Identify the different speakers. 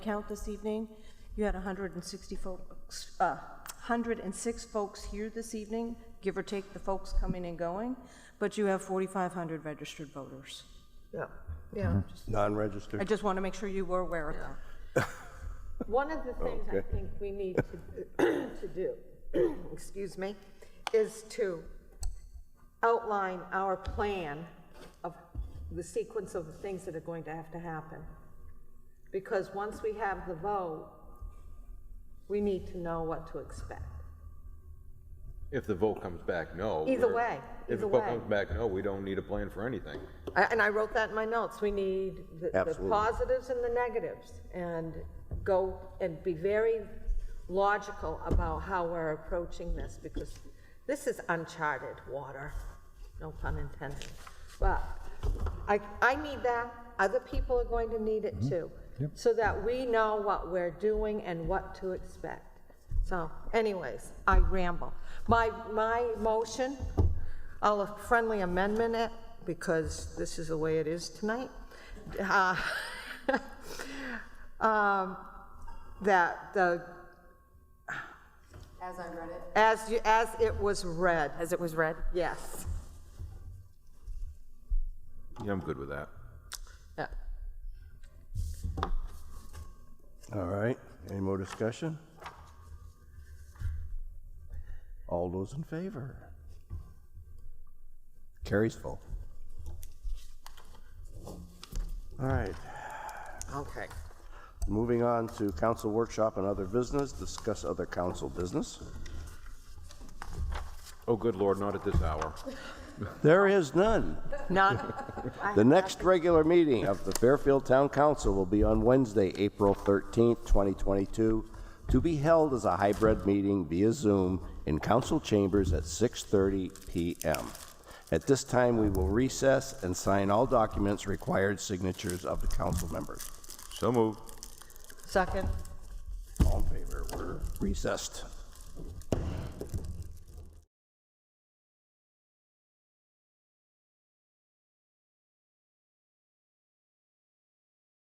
Speaker 1: count this evening. You had 160 folks, uh, 106 folks here this evening, give or take the folks coming and going, but you have 4,500 registered voters.
Speaker 2: Yeah, yeah.
Speaker 1: I
Speaker 3: Mm-hmm. Non-registered?
Speaker 1: just want to make sure you were aware of that.
Speaker 2: One of the things I think we need to, to do, excuse me, is to outline our plan of the sequence of the things that are going to have to happen. Because once we have the vote, we need to know what to expect.
Speaker 4: If the vote comes back no.
Speaker 2: Either
Speaker 4: we're-
Speaker 2: way,
Speaker 4: If
Speaker 2: either
Speaker 4: the
Speaker 2: way.
Speaker 4: vote comes back no, we don't need a plan for anything.
Speaker 2: I- And I wrote that in my notes, we need the- the
Speaker 3: Absolutely.
Speaker 2: positives and the negatives, and go and be very logical about how we're approaching this, because this is uncharted water, no pun intended. But I, I need that, other people are going to need it too, so that we know what we're doing and what to expect. So anyways, I ramble. My, my motion, I'll friendly amendment it, because this is the way it is tonight, Uh, um, that the,
Speaker 5: As I read it.
Speaker 2: as, you- as it was read,
Speaker 5: As it was read?
Speaker 2: yes.
Speaker 4: Yeah, I'm good with that.
Speaker 2: Yeah.
Speaker 3: All right, any more discussion? All those in favor? Carries full. All right,
Speaker 2: Okay.
Speaker 3: moving on to council workshop and other business, discuss other council business.
Speaker 4: Oh, good lord, not at this hour.
Speaker 3: There is none.
Speaker 2: None,
Speaker 3: The next regular meeting of the Fairfield Town Council will be on Wednesday, April 13th, 2022, to be held as a hybrid meeting via Zoom in council chambers at 6:30 PM. At this time, we will recess and sign all documents required signatures of the council members.
Speaker 4: So moved.
Speaker 2: second.
Speaker 3: All in favor, we're recessed.